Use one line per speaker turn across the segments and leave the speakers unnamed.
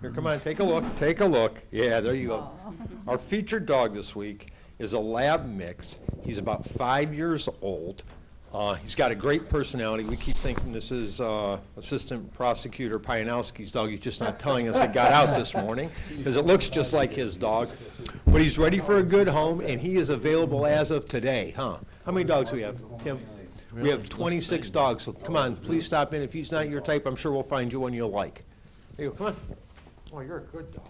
Here, come on, take a look, take a look. Yeah, there you go. Our featured dog this week is a lab mix. He's about five years old. Uh, he's got a great personality. We keep thinking this is uh, Assistant Prosecutor Pianowski's dog. He's just not telling us it got out this morning because it looks just like his dog. But he's ready for a good home, and he is available as of today, huh? How many dogs do we have, Tim? We have 26 dogs, so come on, please stop in. If he's not your type, I'm sure we'll find you one you'll like. There you go, come on. Oh, you're a good dog.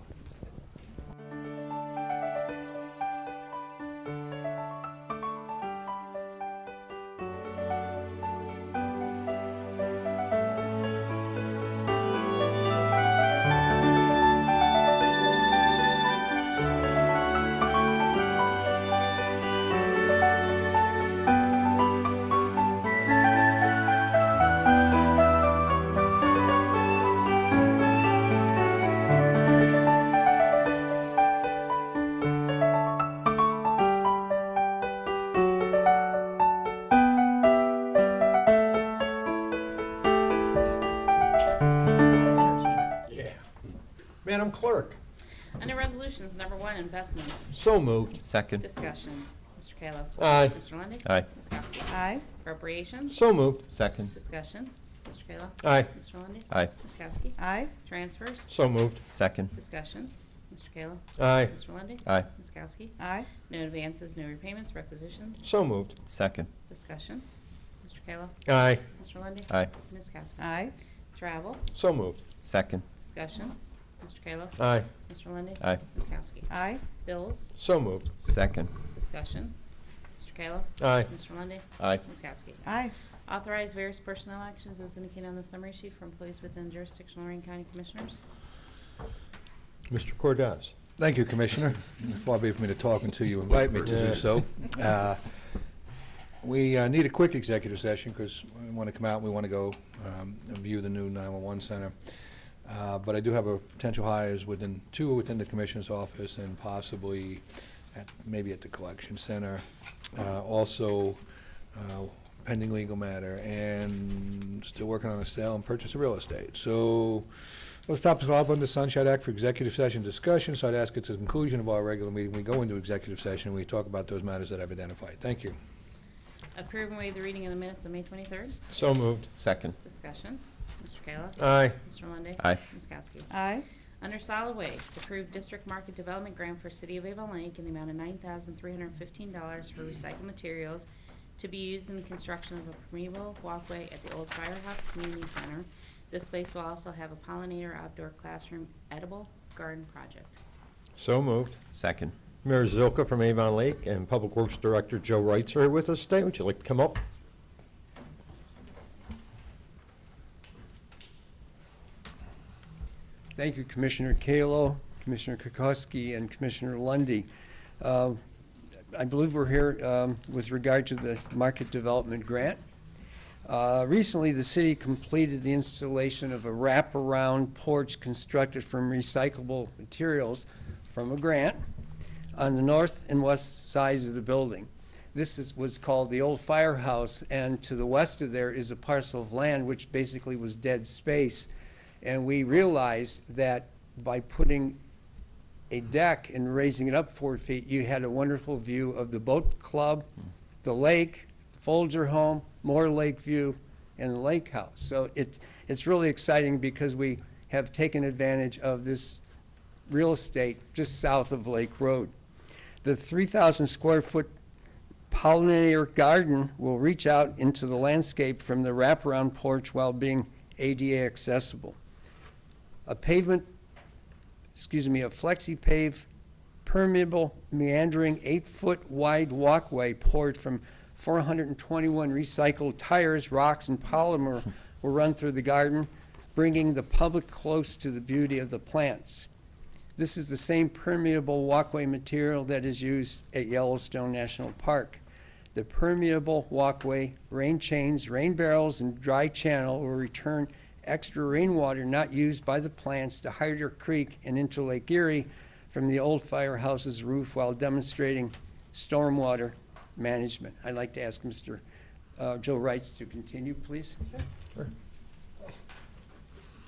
Madam Clerk.
Under Resolutions Number One, Investments,
So moved.
Second.
Discussion. Mr. Kayla.
Aye.
Mr. Lundey.
Aye.
Ms. Kowski.
Aye.
Appropriations,
So moved.
Second.
Discussion. Mr. Kayla.
Aye.
Mr. Lundey.
Aye.
Ms. Kowski.
Aye.
Transfers,
So moved.
Second.
Discussion. Mr. Kayla.
Aye.
Mr. Lundey.
Aye.
Ms. Kowski.
Aye.
No advances, no repayments, requisitions,
So moved.
Second.
Discussion. Mr. Kayla.
Aye.
Mr. Lundey.
Aye.
Ms. Kowski.
Aye.
Travel,
So moved.
Second.
Discussion. Mr. Kayla.
Aye.
Mr. Lundey.
Aye.
Ms. Kowski.
Aye.
Bills,
So moved.
Second.
Discussion. Mr. Kayla.
Aye.
Mr. Lundey.
Aye.
Ms. Kowski.
Aye.
Authorize various personnel actions as indicated on the summary sheet for employees within jurisdiction of Lorraine County Commissioners.
Mr. Cordez.
Thank you, Commissioner. It's far be it for me to talk until you invite me to
Yeah.
do so. Uh, We uh, need a quick executive session because we want to come out, and we want to go um, and view the new 911 center. Uh, But I do have a potential hires within, two within the Commissioner's office and possibly at, maybe at the collection center. Uh, Also uh, pending legal matter and still working on a sale and purchase of real estate. So those topics are up under the Sunshine Act for executive session discussion, so I'd ask at the conclusion of our regular meeting, we go into executive session, we talk about those matters that I've identified. Thank you.
Approve and waive the reading of the minutes of May 23rd.
So moved.
Second.
Discussion. Mr. Kayla.
Aye.
Mr. Lundey.
Aye.
Ms. Kowski.
Aye.
Under solid waste, approve district market development grant for City of Avon Lake in the amount of $9,315 for recycled materials to be used in the construction of a permeable walkway at the old firehouse community center. This space will also have a pollinator outdoor classroom edible garden project.
So moved.
Second.
Mayor Zilka from Avon Lake and Public Works Director Joe Wrights are here with us today. Would you like to come up?
Thank you, Commissioner Kalo, Commissioner Kokoski, and Commissioner Lundy. Uh, I believe we're here um, with regard to the market development grant. Uh, Recently, the city completed the installation of a wraparound porch constructed from recyclable materials from a grant on the north and west sides of the building. This is, was called the old firehouse, and to the west of there is a parcel of land which basically was dead space. And we realized that by putting a deck and raising it up four feet, you had a wonderful view of the boat club, the lake, Folger Home, more Lake View, and the Lake House. So it's, it's really exciting because we have taken advantage of this real estate just south of Lake Road. The 3,000 square foot pollinator garden will reach out into the landscape from the wraparound porch while being ADA accessible. A pavement, excuse me, a flexi-pave permeable meandering eight-foot wide walkway poured from 421 recycled tires, rocks, and polymer will run through the garden, bringing the public close to the beauty of the plants. This is the same permeable walkway material that is used at Yellowstone National Park. The permeable walkway, rain chains, rain barrels, and dry channel will return extra rainwater not used by the plants to Hyder Creek and into Lake Erie from the old firehouse's roof while demonstrating stormwater management. I'd like to ask Mr. uh, Joe Wrights to continue, please.